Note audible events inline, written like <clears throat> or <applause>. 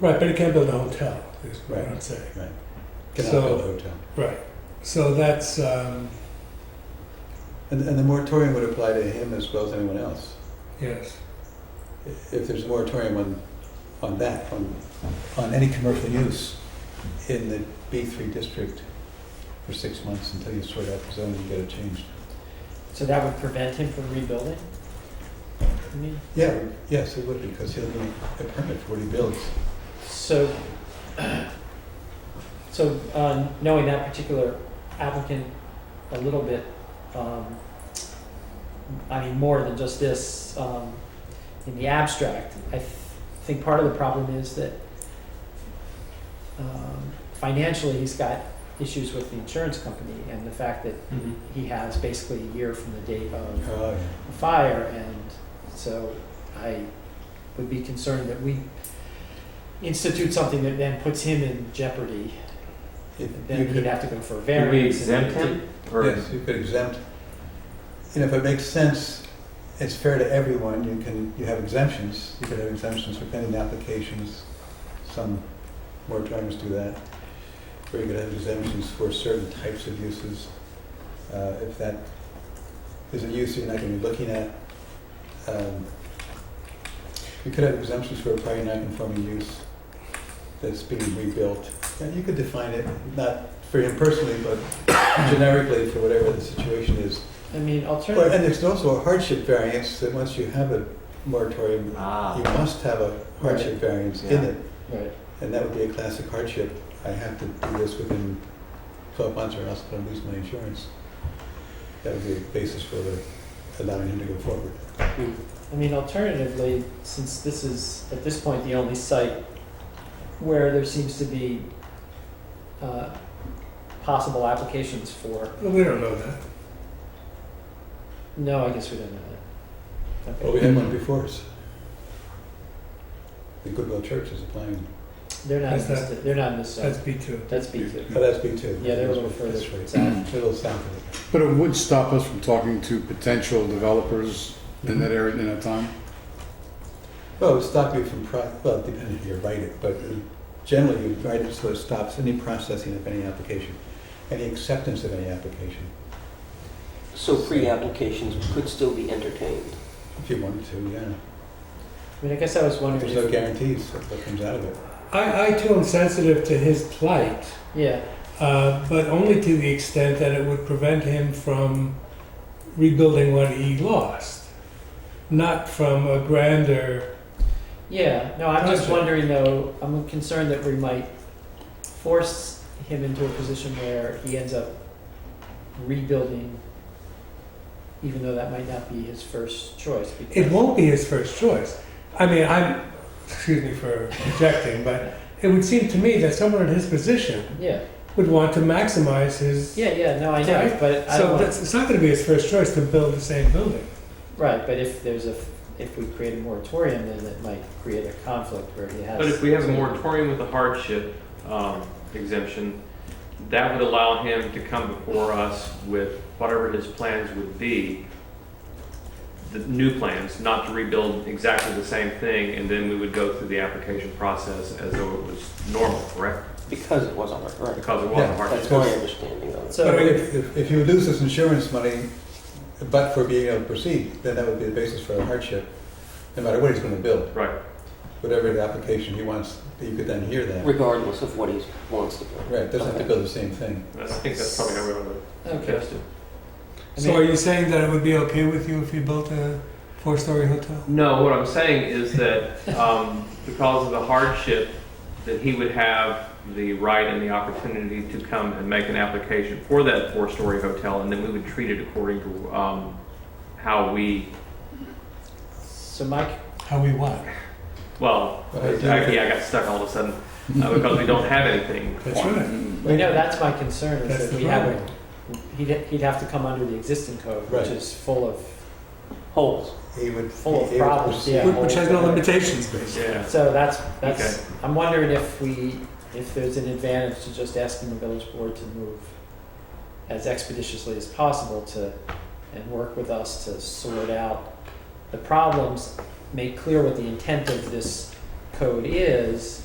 Right, but it can't build a hotel, is what I'm saying. Cannot So- build a hotel. Right. So that's, um, And, and the moratorium would apply to him as well as anyone else. yes, I- If there's a moratorium on, on that, on, on any commercial use in the B three district for six months until you sort out the zone and get it changed. So that would prevent him from rebuilding? I mean, Yeah, yes, it would, because he'll need a permit for what he builds. So, <clears throat> so uh, knowing that particular applicant a little bit, um, I mean, more than just this, um, in the abstract, I th- think part of the problem is that um, financially, he's got issues with the insurance company and the fact that he has basically a year from the date of Oh, a fire, and so I would be concerned that we institute something that then puts him in jeopardy, yeah. and You then he'd could, have to go for a Did variance. we and exempt him? Or- yes, you could exempt, you know, if it makes sense, it's fair to everyone, you can, you have exemptions. You could have exemptions for pending applications, some moratoriums do that. Or you could have exemptions for certain types of uses. Uh, if that is a use you're not gonna be looking at, um, you could have exemptions for a prior non-conforming use that's being rebuilt. And you could define it, not for him personally, but generically for whatever the situation is. I mean, Well, alternative, and there's also a hardship variance that once you have a moratorium, you Ah, must have a hardship variance in Yeah. it. right, And that would be a classic hardship. I have to do this within twelve months or else I'm gonna lose my insurance. That would be a basis for the- allowing him to go forward. I mean, alternatively, since this is, at this point, the only site where there seems to be, uh, possible applications for, well, we don't know that. no, I guess we don't know that. Okay. Well, we had one before us. The Goodwill Church is applying, They're not, in That's this- they're not in this That's zone, B2. that's B two. but Oh, that's B two. Yeah, they're a little further That's right. <clears throat> south. A little south of it. But it would stop us from talking to potential developers in that area in that time? Well, it would stop you from, pro- well, depending if you write it, but uh, generally you write it so it stops any processing of any application, any acceptance of any application, So pre-applications could still be entertained. if you wanted to, yeah. I mean, I guess I was wondering There's no if, guarantees of what comes out of it. I, I too am sensitive to his plight, yeah, uh, but only to the extent that it would prevent him from rebuilding what he lost, not from a grander. yeah, no, I'm just Gotcha. wondering though, I'm concerned that we might force him into a position where he ends up rebuilding, even though that might not be his first choice, because. It won't be his first choice. I mean, I'm, excuse me for objecting, but it would seem to me that someone in his position Yeah, would want to maximize his. yeah, yeah, no, I know, Right. but I So don't want, that's, it's not going to be his first choice to build the same building. right, but if there's a, if we create a moratorium, then it might create a conflict where he has. but if we have a moratorium with a hardship um, exemption, that would allow him to come before us with whatever his plans would be, the new plans, not to rebuild exactly the same thing, and then we would go through the application process as though it was normal, correct? Because it was on it, right? Because it was a Yeah, hardship. That's my understanding of it. So- But if, if- if you lose this insurance money, but for being able to proceed, then that would be the basis for a hardship, no matter what he's gonna build, Right, whatever the application he wants, you could then hear that. Regardless of what he wants to do. Right, doesn't have to build the same thing. I think that's probably how we want to Okay. suggest it. I So mean- are you saying that it would be okay with you if you built a four-story hotel? No, what I'm saying is that um, because of the hardship, that he would have the right and the opportunity to come and make an application for that four-story hotel, and then we would treat it according to um, how we, So Mike, How we want. well, But I do- actually, I got stuck all of a sudden uh, because we don't have anything. That's right. I know, that's my concern, That's is that the we have a problem. He'd, he'd have to come under the existing code, Right. which is full of, Holes. He would. Full of he would problems, proceed. yeah. Which has no limitations, basically. Yeah, so that's, that's, I'm wondering if we, if there's an advantage to just asking the village board to move as expeditiously as possible to, and work with us to sort out the problems, make clear what the intent of this code is,